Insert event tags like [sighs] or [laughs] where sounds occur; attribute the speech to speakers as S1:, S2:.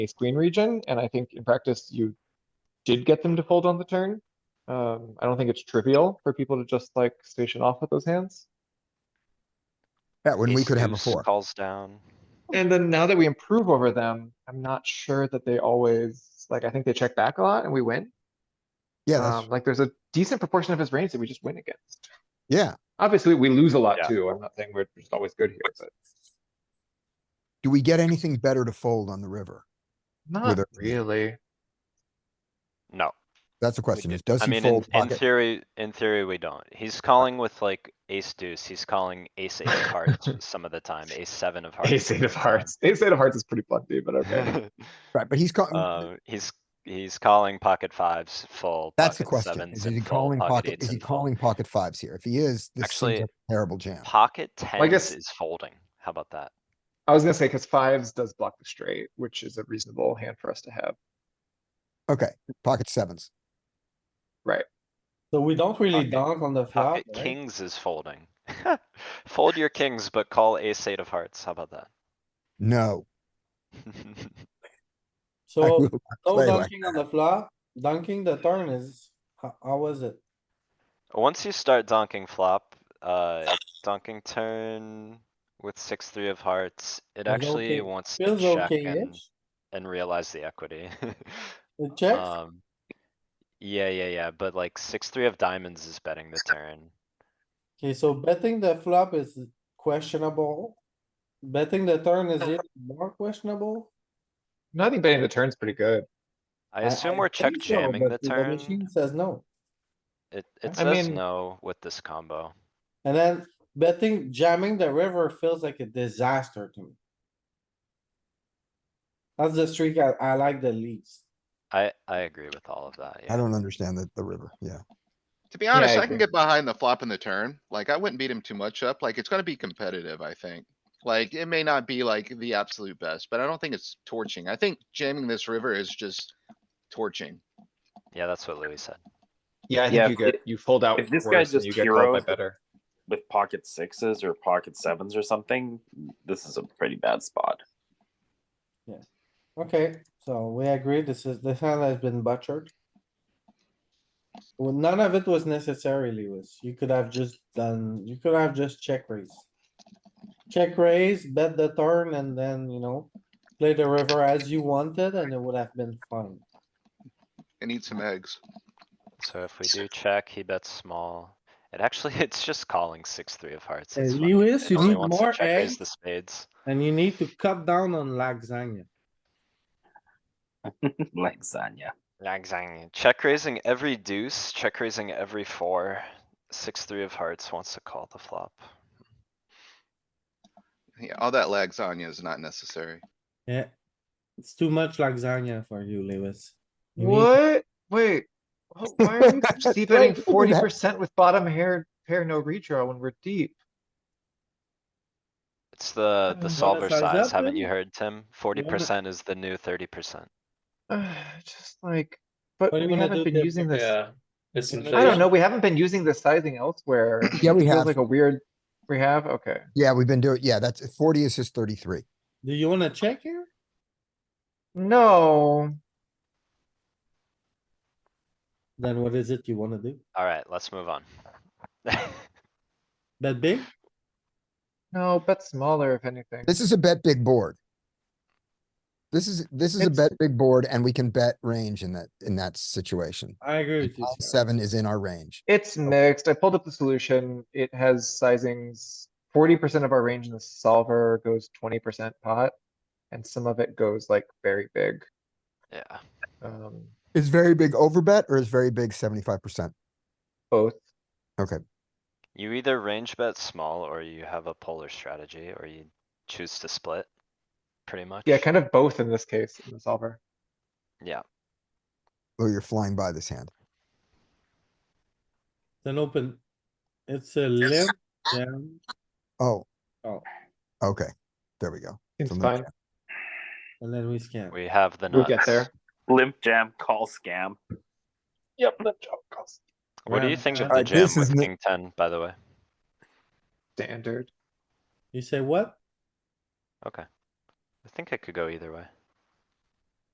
S1: ace queen region, and I think in practice you did get them to fold on the turn. Um, I don't think it's trivial for people to just like station off with those hands.
S2: Yeah, when we
S3: Ace
S2: could have a
S3: deuce
S2: four.
S3: Calls down.
S1: And then now that we improve over them, I'm not sure that they always, like, I think they check back a lot and we win.
S2: Yeah,
S1: Um,
S2: that's,
S1: like, there's a decent proportion of his range that we just win against.
S2: yeah.
S1: Obviously, we lose a lot
S3: Yeah.
S1: too. I'm not saying we're just always good here, but
S2: Do we get anything better to fold on the river?
S1: not
S2: a-
S1: [laughs] really.
S3: No.
S2: That's the question is, does
S3: I
S2: he
S3: mean, in,
S2: fold
S3: in
S2: pocket?
S3: theory, in theory, we don't. He's calling with like ace deuce. He's calling ace eight of
S2: [laughs]
S3: hearts some of the time, ace seven of hearts.
S1: Ace
S3: some
S1: eight of
S3: the
S1: hearts. Ace eight of hearts is pretty plenty, but okay.
S2: [laughs]
S3: [laughs] time.
S2: Right, but he's calling,
S3: Uh, he's, he's calling pocket fives full.
S2: that's the
S3: pocket
S2: question.
S3: sevens
S2: Is he
S3: and full,
S2: calling pocket,
S3: eights
S2: is he
S3: and full.
S2: calling pocket fives here? If he is, this seems
S3: Actually-
S2: like a terrible jam.
S3: Pocket
S1: I
S3: tens
S1: guess-
S3: is folding. How about that?
S1: [laughs] I was gonna say, cause fives does block the straight, which is a reasonable hand for us to have.
S2: Okay, pocket sevens.
S4: So we don't really
S3: Pocket-
S4: dunk on the flop,
S3: Pocket
S4: right?
S3: kings is folding. [laughs] Fold your kings, but call ace eight of hearts. How about that?
S2: No.
S3: [laughs]
S2: I
S4: So
S2: will
S4: no
S2: play like
S4: dunking on the flop, dunking the turn is, how, how was it?
S3: Once you start donking flop, uh, donking turn with six, three of hearts, it
S4: Feels
S3: actually
S4: okay-
S3: wants to
S4: Feels
S3: check
S4: okay
S3: and, and realize the equity. [laughs]
S4: It checks,
S3: Um, Yeah, yeah, yeah, but like six, three of diamonds is betting the turn.
S4: okay, so betting the flop is questionable. Betting the turn is even more questionable.
S1: No, I think betting the turn's pretty good.
S3: I assume we're check
S4: think so,
S3: jamming the
S4: but
S3: turn.
S4: machine Says no,
S3: It, it
S1: I
S3: says
S1: mean-
S3: no with this combo.
S4: and then betting jamming the river feels like a disaster to me. That's the streak I, I like the least.
S3: I, I agree with all of that,
S2: I
S3: yeah.
S2: don't understand the, the river, yeah.
S5: To be honest,
S1: I
S5: I can get behind the flop and the turn. Like, I wouldn't beat him too much up. Like, it's gonna be competitive, I think. Like, it may not be like the absolute best, but I don't think it's torching. I think jamming this river is just torching.
S3: Yeah, that's what Louis said.
S1: Yeah, I
S6: Yeah,
S1: think you
S6: if-
S1: get, you fold out
S6: if this guy
S1: worse and
S6: just
S1: you get called by
S6: heroes-
S1: better.
S6: with pocket sixes or pocket sevens or something, this is a pretty bad spot. [laughs]
S4: Okay, so we agree, this is, this hand has been butchered. Well, none of it was necessary, Lewis. You could have just done, you could have just check raise. Check raise, bet the turn, and then, you know, play the river as you wanted, and it would have been fun.
S5: It needs some eggs.
S3: So if we do check, he bets small. It actually, [laughs] it's just calling six, three of hearts.
S4: Hey,
S3: it's fine.
S4: Lewis,
S3: It
S4: you
S3: only
S4: need
S3: wants to
S4: more
S3: check raise
S4: eggs?
S3: The spades.
S4: And you need to cut down on lasagna.
S6: Lasagna.
S3: Lasagna. Check raising every deuce, check raising every four. Six, three of hearts wants to call the flop.
S5: Yeah, all that lasagna is not necessary.
S4: Yeah, it's too much lasagna for you, Lewis. You need-
S1: What? Wait, wh- why are we
S2: That's
S1: see
S2: right,
S1: betting
S2: look at
S1: forty
S2: that.
S1: percent with bottom hair, pair no redraw when we're deep? [sighs]
S3: It's the,
S1: wanna
S3: the solver
S4: size
S3: size,
S4: up
S3: haven't
S4: then?
S3: you heard, Tim? Forty percent is the new thirty percent.
S1: Just like, but
S4: What do you
S1: we
S4: wanna do
S1: haven't been
S4: there?
S1: using this,
S7: Yeah, it's
S4: I don't
S1: I don't
S7: inflation.
S1: know, we haven't been using this sizing elsewhere.
S2: Yeah, we
S1: Feels
S2: have.
S1: Like a weird, we have, okay.
S2: Yeah, we've been doing, yeah, that's forty is his thirty-three.
S4: Do you wanna check here?
S1: No,
S4: Then what is it you wanna do?
S3: Alright, let's move on. [laughs]
S4: Bet big?
S1: no, bet smaller if anything.
S2: This is a bet big board. This is, this is a
S1: It's-
S2: bet big board and we can bet range in that, in that situation.
S4: I agree with you.
S2: Nine,
S4: Scott.
S2: Seven is in our range.
S1: It's mixed. I pulled up the solution. It has sizings. Forty percent of our range in the solver goes twenty percent pot. And some of it goes like very big.
S3: Yeah,
S1: Um,
S2: Is very big over bet or is very big seventy-five percent?
S1: both.
S3: you either range bet small or you have a polar strategy or you choose to split. Pretty much.
S1: Yeah, kind of both in this case, in the solver.
S3: Yeah,
S2: Oh, you're flying by this hand.
S4: It's an open, it's a limp, jam.
S2: Oh.
S4: Oh.
S2: Okay, there we go.
S1: It's
S2: From the
S1: fine.
S4: and then we scan.
S3: we have the
S1: We'll
S3: nuts.
S1: get there.
S6: Limp jam, call scam.
S1: Yep, no calls.
S3: What do you
S4: Ram,
S3: think of
S4: ram.
S3: the
S2: Alright,
S3: jam
S2: Uh, this is
S3: with
S2: ne-
S3: king ten, by the way?
S1: Standard.
S4: You say what?
S3: Okay. I think it could go either way.